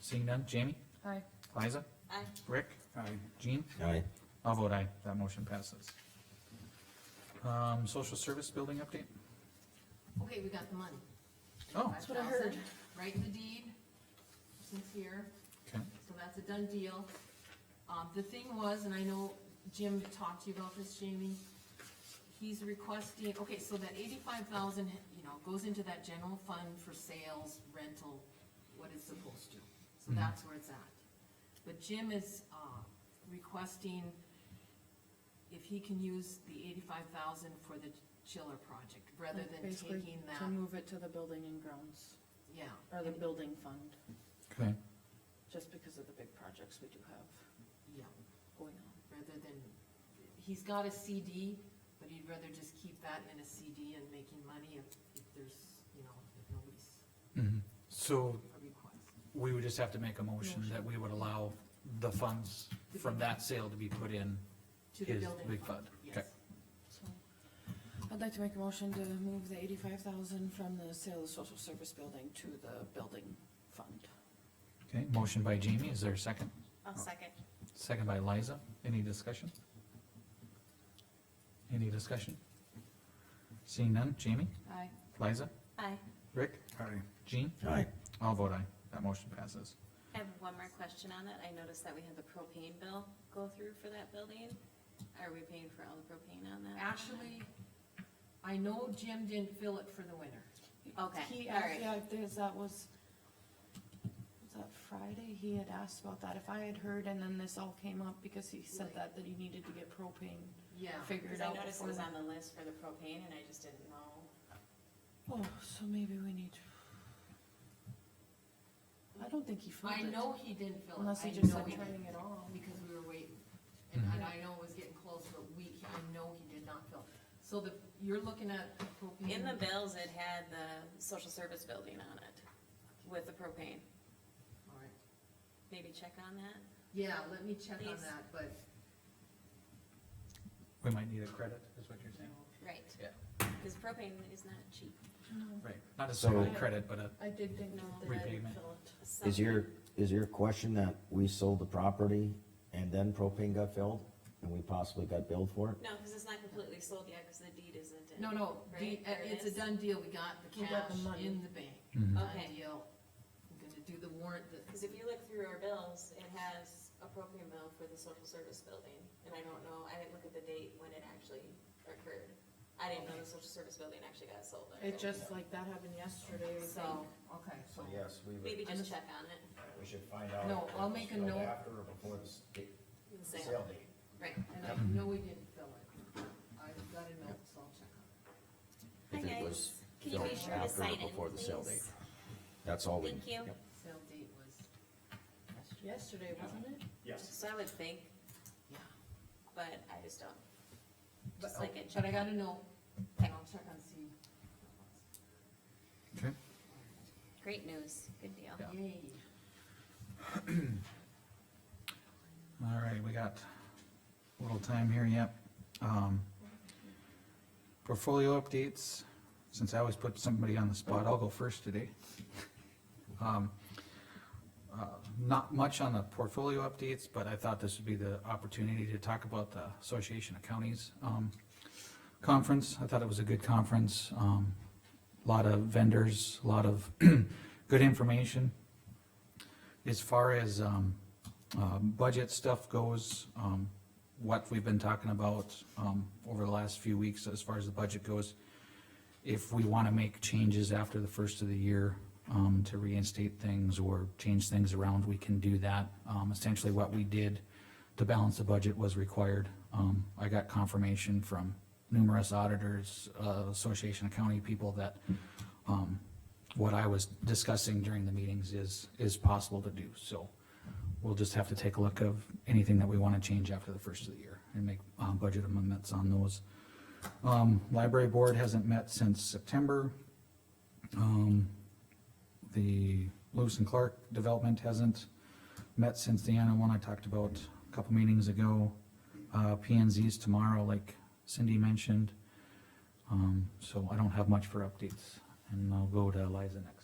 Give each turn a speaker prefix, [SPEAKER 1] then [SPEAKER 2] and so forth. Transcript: [SPEAKER 1] Seeing none, Jamie,
[SPEAKER 2] Aye.
[SPEAKER 1] Liza,
[SPEAKER 3] Aye.
[SPEAKER 1] Rick,
[SPEAKER 4] Aye.
[SPEAKER 1] Jean,
[SPEAKER 5] Aye.
[SPEAKER 1] I'll vote aye, that motion passes. Um, social service building update?
[SPEAKER 3] Okay, we got the money.
[SPEAKER 1] Oh,
[SPEAKER 3] Five
[SPEAKER 2] what I heard.
[SPEAKER 3] thousand, Right in the deed, since here,
[SPEAKER 1] okay,
[SPEAKER 3] so that's a done deal. Um, the thing was, and I know Jim talked to you about this, Jamie, he's requesting, okay, so that eighty-five thousand, you know, goes into that general fund for sales, rental, what it's supposed to. So
[SPEAKER 1] Mhm.
[SPEAKER 3] that's where it's at. But Jim is, uh, requesting if he can use the eighty-five thousand for the chiller project, rather
[SPEAKER 2] Like
[SPEAKER 3] than
[SPEAKER 2] basically
[SPEAKER 3] taking that,
[SPEAKER 2] To move it to the building and grounds,
[SPEAKER 3] yeah.
[SPEAKER 2] or the building fund,
[SPEAKER 1] okay,
[SPEAKER 2] just because of the big projects we do have
[SPEAKER 3] Yeah,
[SPEAKER 2] going on.
[SPEAKER 3] rather than, he's got a CD, but he'd rather just keep that in a CD and making money if, if there's, you know, if nobody's
[SPEAKER 1] mhm. So
[SPEAKER 3] a request.
[SPEAKER 1] we would just have to make a motion that we would allow the funds from that sale to be put in
[SPEAKER 3] To the
[SPEAKER 1] his
[SPEAKER 3] building
[SPEAKER 1] big
[SPEAKER 3] fund,
[SPEAKER 1] fund.
[SPEAKER 3] yes.
[SPEAKER 2] So, I'd like to make a motion to move the eighty-five thousand from the sale of social service building to the building fund.
[SPEAKER 1] Okay, motion by Jamie, is there a second?
[SPEAKER 6] I'll second.
[SPEAKER 1] Second by Liza, any discussion? Any discussion? Seeing none, Jamie,
[SPEAKER 3] Aye.
[SPEAKER 1] Liza,
[SPEAKER 6] Aye.
[SPEAKER 1] Rick,
[SPEAKER 4] Aye.
[SPEAKER 1] Jean,
[SPEAKER 5] Aye.
[SPEAKER 1] I'll vote aye, that motion passes.
[SPEAKER 6] I have one more question on that. I noticed that we had the propane bill go through for that building. Are we paying for all the propane on that?
[SPEAKER 3] Actually, I know Jim didn't fill it for the winter.
[SPEAKER 6] Okay,
[SPEAKER 2] He,
[SPEAKER 6] all
[SPEAKER 2] asked-
[SPEAKER 6] right.
[SPEAKER 2] yeah, there's, that was, was that Friday? He had asked about that, if I had heard, and then this all came up, because he said
[SPEAKER 6] Right. Oh,
[SPEAKER 2] that, that he needed to get propane
[SPEAKER 3] Yeah.
[SPEAKER 2] figured
[SPEAKER 6] Because I
[SPEAKER 2] out
[SPEAKER 6] noticed
[SPEAKER 2] before.
[SPEAKER 6] it was on the list for the propane and I just didn't know.
[SPEAKER 2] Oh, so maybe we need. I don't think he filled
[SPEAKER 3] I
[SPEAKER 2] it,
[SPEAKER 3] know he didn't fill it.
[SPEAKER 2] unless he
[SPEAKER 3] I
[SPEAKER 2] just
[SPEAKER 3] know
[SPEAKER 2] said
[SPEAKER 3] he didn't,
[SPEAKER 2] turning it on.
[SPEAKER 3] Because we were waiting, and
[SPEAKER 1] Mm-hmm.
[SPEAKER 3] and I know it was getting close, but we, I know he did not fill. So the, you're looking at the propane.
[SPEAKER 6] In the bills, it had the social service building on it with the propane.
[SPEAKER 3] All right.
[SPEAKER 6] Maybe check on that?
[SPEAKER 3] Yeah, let me check on
[SPEAKER 6] Please.
[SPEAKER 3] that, but
[SPEAKER 1] We might need a credit, is what you're saying?
[SPEAKER 6] Right.
[SPEAKER 1] Yeah.
[SPEAKER 6] Because propane is not cheap.
[SPEAKER 1] Right, not necessarily
[SPEAKER 2] So-
[SPEAKER 1] credit, but a,
[SPEAKER 2] I did think
[SPEAKER 6] No.
[SPEAKER 2] that they did
[SPEAKER 1] Repayment.
[SPEAKER 2] fill it.
[SPEAKER 5] Is your, is your question that we sold the property and then propane got filled and we possibly got billed for it?
[SPEAKER 6] No, because it's not completely sold yet because the deed isn't in.
[SPEAKER 3] No, no, the-
[SPEAKER 6] Right?
[SPEAKER 3] uh, it's a done deal, we got the
[SPEAKER 2] We got the
[SPEAKER 3] cash
[SPEAKER 2] money.
[SPEAKER 3] in the bank.
[SPEAKER 1] Mhm.
[SPEAKER 3] Done
[SPEAKER 6] Okay.
[SPEAKER 3] deal. We're gonna do the warrant, the-
[SPEAKER 6] Because if you look through our bills, it has a propane bill for the social service building, and I don't know, I didn't look at the date when it actually occurred. I didn't know the social service building actually got sold.
[SPEAKER 2] It just like that happened yesterday, so.
[SPEAKER 3] so, okay, so,
[SPEAKER 5] yes, we
[SPEAKER 6] Maybe
[SPEAKER 3] I'm-
[SPEAKER 6] just check on it
[SPEAKER 5] we should find out.
[SPEAKER 3] No, if I'll it was make a filled note. after
[SPEAKER 5] or before the
[SPEAKER 6] and say, right,
[SPEAKER 5] date.
[SPEAKER 3] and I know we didn't fill it. I've got a note, so I'll check on
[SPEAKER 6] hi
[SPEAKER 5] If it
[SPEAKER 6] guys,
[SPEAKER 5] was
[SPEAKER 6] can you
[SPEAKER 5] filled
[SPEAKER 6] be sure to
[SPEAKER 5] after or
[SPEAKER 6] sign in,
[SPEAKER 5] before the sale
[SPEAKER 6] please?
[SPEAKER 5] That's all we.
[SPEAKER 6] Thank you.
[SPEAKER 5] Yep.
[SPEAKER 3] it. Sale date was,
[SPEAKER 2] Yesterday, wasn't it?
[SPEAKER 6] So I would think,
[SPEAKER 3] yeah.
[SPEAKER 6] but I just don't,
[SPEAKER 3] But,
[SPEAKER 6] just like it,
[SPEAKER 3] but
[SPEAKER 6] check
[SPEAKER 3] I got a note, and I'll check on see.
[SPEAKER 1] okay,
[SPEAKER 6] great news, good deal.
[SPEAKER 1] Yeah.
[SPEAKER 3] Yay.
[SPEAKER 1] all right, we got a little time here, yep. Um, portfolio updates, since I always put somebody on the spot, I'll go first today. Um, uh, not much on the portfolio updates, but I thought this would be the opportunity to talk about the Association of Counties, um, conference. I thought it was a good conference, um, lot of vendors, a lot of good information. As far as, um, uh, budget stuff goes, um, what we've been talking about, um, over the last few weeks as far as the budget goes. If we wanna make changes after the first of the year, um, to reinstate things or change things around, we can do that. Um, essentially what we did to balance the budget was required. Um, I got confirmation from numerous auditors, uh, Association of County people that, um, what I was discussing during the meetings is, is possible to do, so we'll just have to take a look of anything that we want to change after the first of the year and make um, budget amendments on those. Um, Library Board hasn't met since September. Um, The Lewis and Clark Development hasn't met since the Anna one I talked about a couple meetings ago. Uh, P and Z's tomorrow, like Cindy mentioned. Um, So I don't have much for updates, and I'll go to Liza next.